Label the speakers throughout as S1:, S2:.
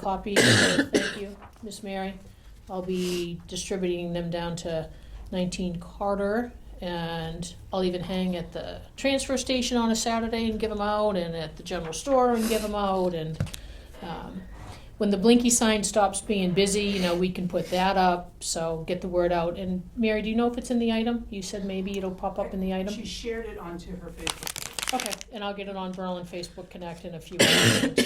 S1: copy, so thank you, Miss Mary. I'll be distributing them down to nineteen Carter, and I'll even hang at the transfer station on a Saturday and give them out, and at the general store and give them out, and, um, when the Blinky sign stops being busy, you know, we can put that up, so get the word out. And Mary, do you know if it's in the item? You said maybe it'll pop up in the item?
S2: She shared it onto her Facebook.
S1: Okay, and I'll get it on Berlin Facebook Connect in a few hours.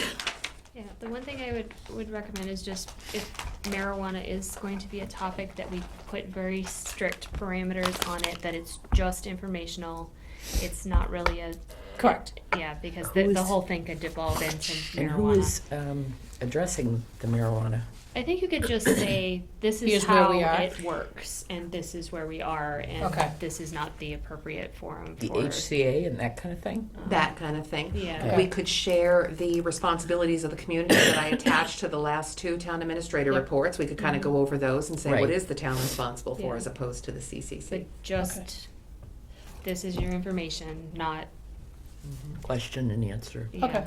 S3: Yeah, the one thing I would, would recommend is just if marijuana is going to be a topic that we put very strict parameters on it, that it's just informational. It's not really a,
S1: Correct.
S3: yeah, because the,
S4: Who
S3: the
S4: is-
S3: whole thing could devolve into
S4: And who is
S3: marijuana.
S4: um, addressing the marijuana?
S3: I think you could just say, this is
S1: Here's where
S3: how
S1: we are."
S3: it works, and this is where we are, and
S1: Okay.
S3: this is not the appropriate forum
S4: The
S3: for. um,
S4: HCA and that kind of thing?
S5: that kind of thing.
S3: Yeah.
S5: We could share the responsibilities of the community that I attached to the last two town administrator
S1: Yep.
S5: reports. We could kind of go over those and say,
S4: Right.
S5: what is the town responsible
S3: Yeah.
S5: for as opposed to the CCC?
S3: But just, this is your information, not,
S4: Question and answer.
S3: yeah.
S1: Okay.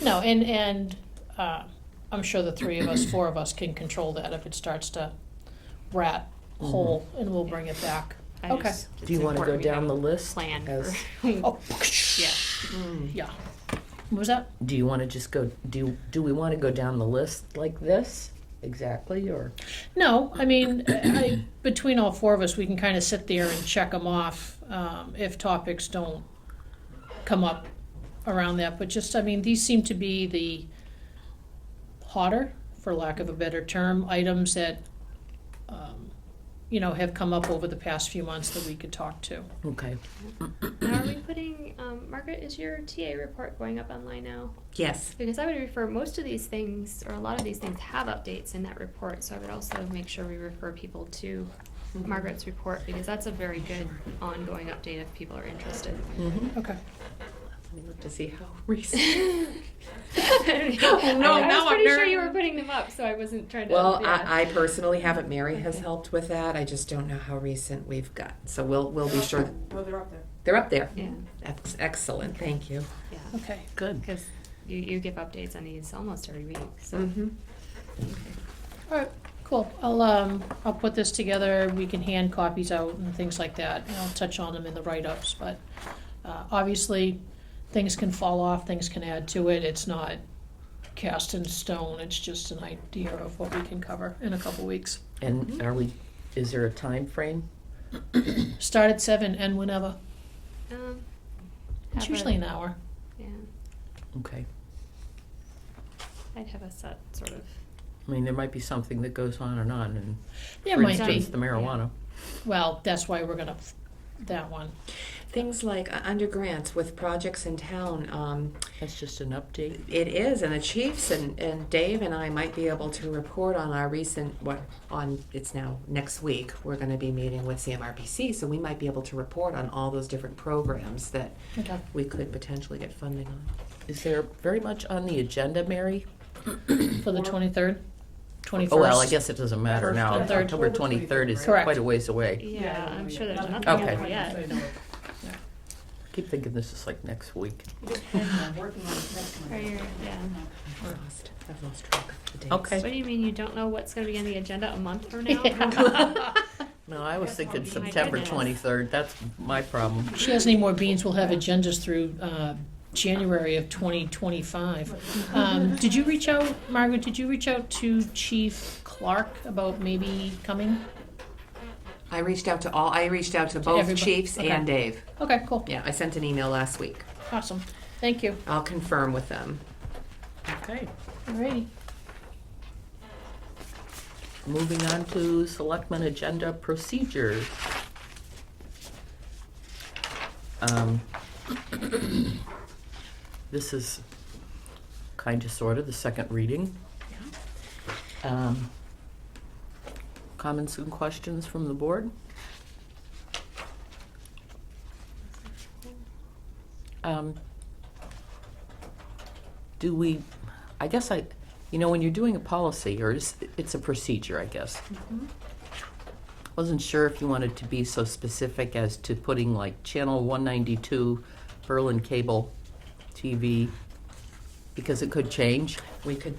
S1: No, and, and, uh, I'm sure the three of us, four of us can control that if it starts to rat hole, and we'll bring it back.
S3: I
S1: Okay.
S3: just-
S4: Do you
S3: it's
S4: want to go
S3: important we have
S4: down the list?
S3: plan
S4: as-
S3: for,
S1: Oh,
S3: yeah.
S1: yeah. What was that?
S4: Do you want to just go, do, do we want to go down the list like this exactly, or?
S1: No, I mean, I, between all four of us, we can kind of sit there and check them off, um, if topics don't come up around that, but just, I mean, these seem to be the hotter, for lack of a better term, items that, um, you know, have come up over the past few months that we could talk to.
S4: Okay.
S3: Now, are we putting, um, Margaret, is your TA report going up online now?
S5: Yes.
S3: Because I would refer, most of these things, or a lot of these things have updates in that report, so I would also make sure we refer people to
S5: Mm-hmm.
S3: Margaret's report, because that's a very good ongoing update if people are interested.
S1: Okay.
S5: Let me look to see how recent.
S3: I
S5: Oh, no,
S3: I
S5: now
S3: was
S5: I'm
S3: pretty sure you
S5: nervous.
S3: were putting them up, so I wasn't trying to.
S5: Well,
S3: yeah.
S5: I, I personally haven't. Mary has
S3: Okay.
S5: helped with that. I just don't know how recent we've got. So we'll, we'll be sure. that-
S2: Well, they're up there.
S5: They're up there.
S3: Yeah,
S5: Ex- Excellent, thank you.
S3: yeah,
S1: Okay.
S4: Good.
S3: because you, you give updates on these almost every week, so.
S5: Mm-hmm.
S1: All right, cool. I'll, um, I'll put this together, we can hand copies out and things like that, and I'll touch on them in the write-ups, but, uh, obviously, things can fall off, things can add to it, it's not cast in stone, it's just an idea of what we can cover in a couple weeks.
S4: And are we, is there a time frame?
S1: Start at seven, end whenever,
S5: Mm.
S3: um,
S1: it's
S3: have a-
S1: usually an hour.
S3: Yeah,
S4: Okay.
S3: I'd have a set sort of.
S4: I mean, there might be something that goes on and on, and
S1: There
S4: for
S1: might
S4: instance,
S1: be,
S4: the marijuana.
S1: well, that's why we're gonna, f- that one,
S5: Things like uh, under grants with projects in town, um,
S4: That's just an update.
S5: It is, and the chiefs and, and Dave and I might be able to report on our recent, what, on, it's now next week, we're gonna be meeting with CMRPC, so we might be able to report on all those different programs that
S1: okay.
S5: we could potentially get funding on.
S4: Is there very much on the agenda, Mary?
S1: For the twenty-third, twenty-first.
S4: Oh, well, I guess it doesn't matter
S2: First
S4: now.
S1: and third.
S4: October 23rd is
S1: Correct.
S4: quite a ways away.
S3: Yeah,
S2: I
S3: I'm
S2: mean,
S3: sure there's nothing
S4: Okay.
S3: out there
S2: I
S3: yet.
S2: know it.
S4: Keep thinking this is like next week.
S2: I'm working on it next
S3: Or
S2: month.
S3: you're- yeah.
S5: I've lost, I've lost track of the dates.
S4: Okay.
S3: What do you mean you don't know what's going to be on the agenda a month from now?
S4: No, I was thinking
S3: My
S4: September
S3: goodness.
S4: 23rd. That's my problem.
S1: She has any more beans, we'll have agendas through uh, January of 2025. Um, Did you reach out, Margaret, did you reach out to Chief Clark about maybe coming?
S5: I reached out to all, I reached out to both
S1: everybody,
S5: chiefs and Dave.
S1: Okay, cool,
S5: Yeah, I sent an email last week.
S1: awesome, thank you.
S5: I'll confirm with them.
S4: Okay.
S1: Alrighty,
S4: Moving on to selectmen agenda procedures. Um, This is kind of sort of the second reading. Um, Comments and questions from the board? Um, Do we, I guess I, you know, when you're doing a policy, or it's, it's a procedure, I guess. Wasn't sure if you wanted to be so specific as to putting like channel one ninety-two, Berlin cable TV, because it could change.
S5: We could